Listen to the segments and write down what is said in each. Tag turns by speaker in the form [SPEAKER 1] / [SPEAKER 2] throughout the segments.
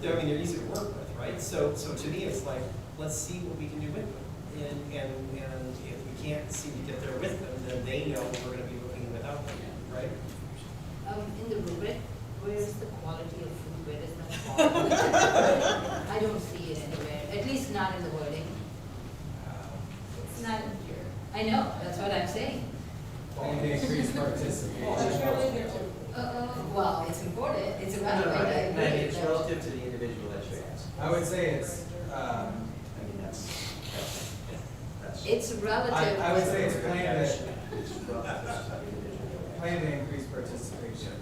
[SPEAKER 1] they're easy to work with, right? So, so to me, it's like, let's see what we can do with them. And, and, and if we can't seem to get there with them, then they know we're gonna be looking without them, right?
[SPEAKER 2] Um, in the rubric, where is the quality of food, where is the quality? I don't see it anywhere, at least not in the wording. It's not in here. I know, that's what I'm saying.
[SPEAKER 1] Um,
[SPEAKER 3] And they increase participation.
[SPEAKER 4] Well, it's really good
[SPEAKER 2] Uh,
[SPEAKER 4] to-
[SPEAKER 2] uh, well, it's important, it's about,
[SPEAKER 5] No, no,
[SPEAKER 2] I
[SPEAKER 5] I- I mean,
[SPEAKER 2] agree
[SPEAKER 5] it's
[SPEAKER 2] that-
[SPEAKER 5] relative to the individual that you ask.
[SPEAKER 3] I would say it's, um,
[SPEAKER 5] I mean, that's, that's, that's.
[SPEAKER 2] It's
[SPEAKER 3] I,
[SPEAKER 2] relative.
[SPEAKER 3] I would say it's planned
[SPEAKER 5] It's
[SPEAKER 3] to,
[SPEAKER 5] relative to the individual.
[SPEAKER 3] planned to increase participation.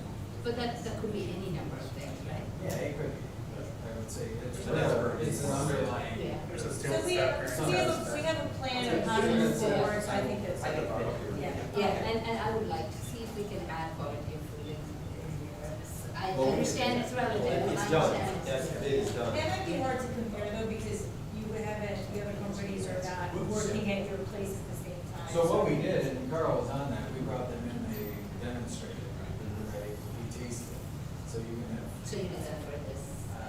[SPEAKER 2] But that, that could be any number of things, right?
[SPEAKER 3] Yeah, it could, I would say, it's,
[SPEAKER 1] So that's-
[SPEAKER 3] it's an underlying.
[SPEAKER 2] Yeah.
[SPEAKER 4] So we have, we have, a- we have a plan of how to move forward, so I think that's.
[SPEAKER 5] I think that-
[SPEAKER 4] Yeah.
[SPEAKER 2] Yeah, and, and I would like to see if we can add quality of food in, in here. I
[SPEAKER 1] Well, we-
[SPEAKER 2] understand it's relative, I
[SPEAKER 1] It's
[SPEAKER 2] understand.
[SPEAKER 1] done,
[SPEAKER 2] it's-
[SPEAKER 1] that's, it is done.
[SPEAKER 4] That might be hard to compare though, because you haven't, you haven't companies are not working at your place at the same time.
[SPEAKER 3] So what we did, and Carl was on that, we brought them in, they demonstrated, right, right, we tasted. So you can have,
[SPEAKER 2] So you know that for this,
[SPEAKER 3] uh,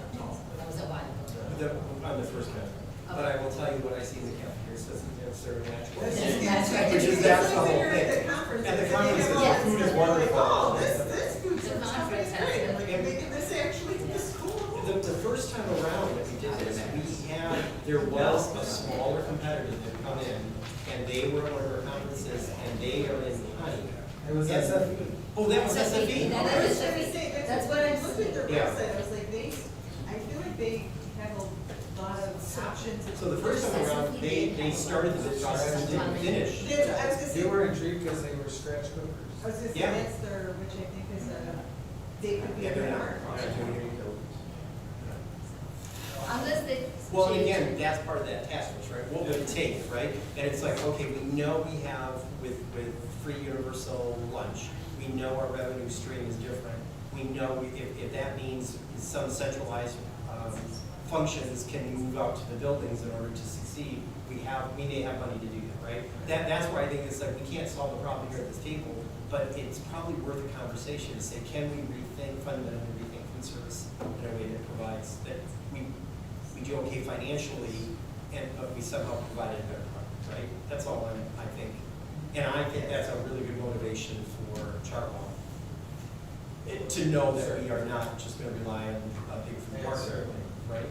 [SPEAKER 2] that was
[SPEAKER 3] no,
[SPEAKER 2] a while ago.
[SPEAKER 3] the,
[SPEAKER 1] The- On the first one. But I will tell you what I see in the cafeteria, so it's, it's sort of natural.
[SPEAKER 2] Yes, that's right.
[SPEAKER 1] Which is that's the whole
[SPEAKER 6] When you're at
[SPEAKER 1] thing.
[SPEAKER 6] the conference,
[SPEAKER 1] At the
[SPEAKER 6] and they
[SPEAKER 1] conference,
[SPEAKER 6] have all
[SPEAKER 2] yes.
[SPEAKER 6] this
[SPEAKER 1] food is
[SPEAKER 6] stuff,
[SPEAKER 1] wonderful.
[SPEAKER 2] The
[SPEAKER 6] you're like, Oh, this, this food stuff
[SPEAKER 2] conference
[SPEAKER 6] is great,
[SPEAKER 2] has
[SPEAKER 6] like,
[SPEAKER 2] it.
[SPEAKER 6] they're making this actually to the school.
[SPEAKER 1] The, the first time around that we did this, we had, there was a smaller competitor that come in, and they were at one of our conferences, and they are in honey.
[SPEAKER 3] it was E.
[SPEAKER 1] Yes.
[SPEAKER 3] SF.
[SPEAKER 1] Oh, that was
[SPEAKER 2] That's
[SPEAKER 1] SFE.
[SPEAKER 2] what we-
[SPEAKER 6] I
[SPEAKER 2] that
[SPEAKER 1] okay.
[SPEAKER 6] was
[SPEAKER 2] is-
[SPEAKER 6] trying to say, that's.
[SPEAKER 2] That's what I'm
[SPEAKER 6] I looked at their
[SPEAKER 1] Yeah.
[SPEAKER 6] website, I was like, they, I feel like they have a lot of options. and-
[SPEAKER 1] So the first time
[SPEAKER 2] E
[SPEAKER 1] around, they, they started the process and didn't finish.
[SPEAKER 6] They're- I was gonna
[SPEAKER 3] They
[SPEAKER 6] say,
[SPEAKER 3] were intrigued because they were scratch
[SPEAKER 6] I
[SPEAKER 3] cookers.
[SPEAKER 6] was gonna say,
[SPEAKER 1] Yeah.
[SPEAKER 6] that's their, which I think is a, they could be
[SPEAKER 1] Yeah,
[SPEAKER 6] a
[SPEAKER 1] they're not-
[SPEAKER 6] part.
[SPEAKER 1] they're not doing anything.
[SPEAKER 2] Unless they.
[SPEAKER 1] Well, and again, that's part of that task force, right? What would it take, right? And it's like, okay, we know we have with, with free universal lunch, we know our revenue stream is different. We know if, if that means some centralized, um, functions can move out to the buildings in order to succeed, we have, we may have money to do that, right? That, that's why I think it's like, we can't solve the problem here at this table, but it's probably worth a conversation to say, can we rethink, fundamentally rethink food service in a way that provides, that we, we do okay financially, and, but we somehow provide a better product, right? That's all I, I think. And I think that's a really good motivation for Chartwell, eh, to know that we are not just gonna rely on a big food
[SPEAKER 3] Yes,
[SPEAKER 1] partner,
[SPEAKER 3] certainly.
[SPEAKER 1] right?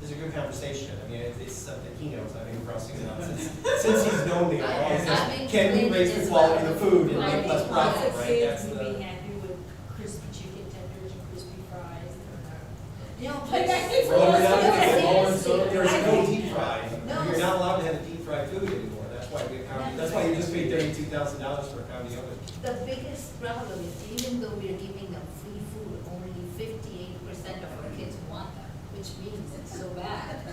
[SPEAKER 1] This is a good conversation, I mean, it- it's something he knows, I've been crossing it out since, since he's known me,
[SPEAKER 2] I-
[SPEAKER 1] I always
[SPEAKER 2] I've
[SPEAKER 1] say,
[SPEAKER 2] been
[SPEAKER 1] can we
[SPEAKER 2] doing
[SPEAKER 1] raise
[SPEAKER 2] it
[SPEAKER 1] the
[SPEAKER 2] as
[SPEAKER 1] quality
[SPEAKER 2] well.
[SPEAKER 1] of the food and
[SPEAKER 2] I
[SPEAKER 1] make
[SPEAKER 2] think
[SPEAKER 1] less profit,
[SPEAKER 2] lots
[SPEAKER 1] right? That's
[SPEAKER 4] I think lots of kids would be
[SPEAKER 1] the,
[SPEAKER 4] happy with crispy chicken tenders and crispy fries.
[SPEAKER 2] No, but.
[SPEAKER 4] Like, I think
[SPEAKER 1] Roll it up,
[SPEAKER 4] Yes,
[SPEAKER 1] roll it
[SPEAKER 4] yes,
[SPEAKER 1] so
[SPEAKER 4] yes.
[SPEAKER 1] There's
[SPEAKER 4] I
[SPEAKER 1] no
[SPEAKER 4] think-
[SPEAKER 1] deep fry.
[SPEAKER 2] No.
[SPEAKER 1] You're not allowed to have deep fried food anymore. That's why we, account- that's why you just paid thirty-two thousand dollars for a county oven.
[SPEAKER 2] The biggest problem is even though we're giving them free food, only fifty-eight percent of our kids want them, which means it's so bad.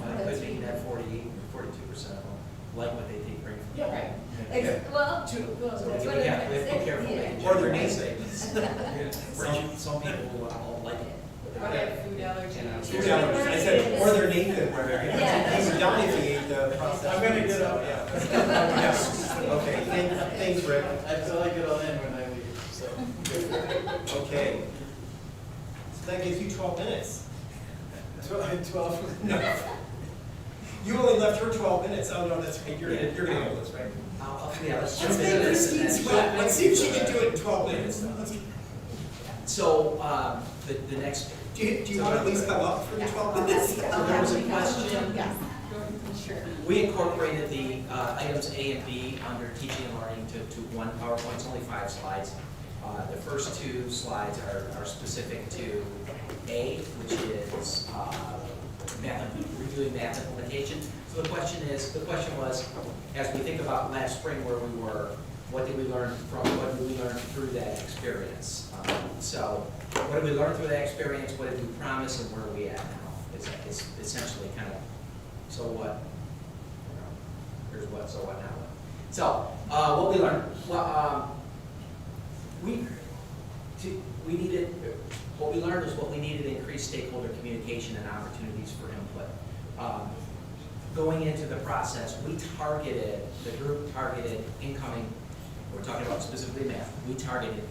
[SPEAKER 5] Well, It could be that 48 42 percent of them like what they think bring from.
[SPEAKER 1] Yeah.
[SPEAKER 2] Right.
[SPEAKER 5] Yeah.
[SPEAKER 2] Ex- Well,
[SPEAKER 5] So
[SPEAKER 2] well, that's
[SPEAKER 5] we
[SPEAKER 2] what
[SPEAKER 5] have-
[SPEAKER 2] I'm
[SPEAKER 5] we have to be
[SPEAKER 2] saying,
[SPEAKER 5] careful what
[SPEAKER 2] yeah.
[SPEAKER 5] they
[SPEAKER 1] Or they're
[SPEAKER 5] generate.
[SPEAKER 1] naysayers.
[SPEAKER 5] Some, some people don't like it.
[SPEAKER 4] Or have food allergies.
[SPEAKER 1] Food allergies. I said, or they're Nathan Ware.
[SPEAKER 2] Yeah.
[SPEAKER 1] They would die if they ate the processed.
[SPEAKER 3] I'm gonna get up.
[SPEAKER 1] food, so, yeah. Yeah. Okay, thank- thanks, Rick.
[SPEAKER 3] I feel like it'll end when I leave, so.
[SPEAKER 1] Okay. So that gives you twelve minutes.
[SPEAKER 3] Twelve.
[SPEAKER 1] No. You only left her twelve minutes. Oh, no, that's right. You're, you're gonna handle this, right?
[SPEAKER 5] I'll, I'll- yeah, let's jump
[SPEAKER 1] Let's
[SPEAKER 5] into
[SPEAKER 1] make
[SPEAKER 5] this and
[SPEAKER 1] Christine
[SPEAKER 5] then-
[SPEAKER 1] sweat. Let's see if she can do it in twelve minutes. Let's-
[SPEAKER 5] So, um, the, the next.
[SPEAKER 1] Do you, do you want to at least come up for twelve minutes?
[SPEAKER 5] So there was a question
[SPEAKER 4] Yes.
[SPEAKER 5] We incorporated the uh, items A and B under teaching and learning to, to one PowerPoint, it's only five slides. Uh, The first two slides are, are specific to A, which is uh, math, reviewing math implementation. So the question is, the question was, as we think about last spring where we were, what did we learn from, what did we learn through that experience? Um, So what did we learn through that experience, what did we promise, and where are we at now? It's, it's essentially kind of, so what, you know, here's what, so what, now what. So, uh, what we learned, well, um, we, to, we needed, what we learned is what we needed to increase stakeholder communication and opportunities for input. Um, Going into the process, we targeted, the group targeted incoming, we're talking about specifically math, we targeted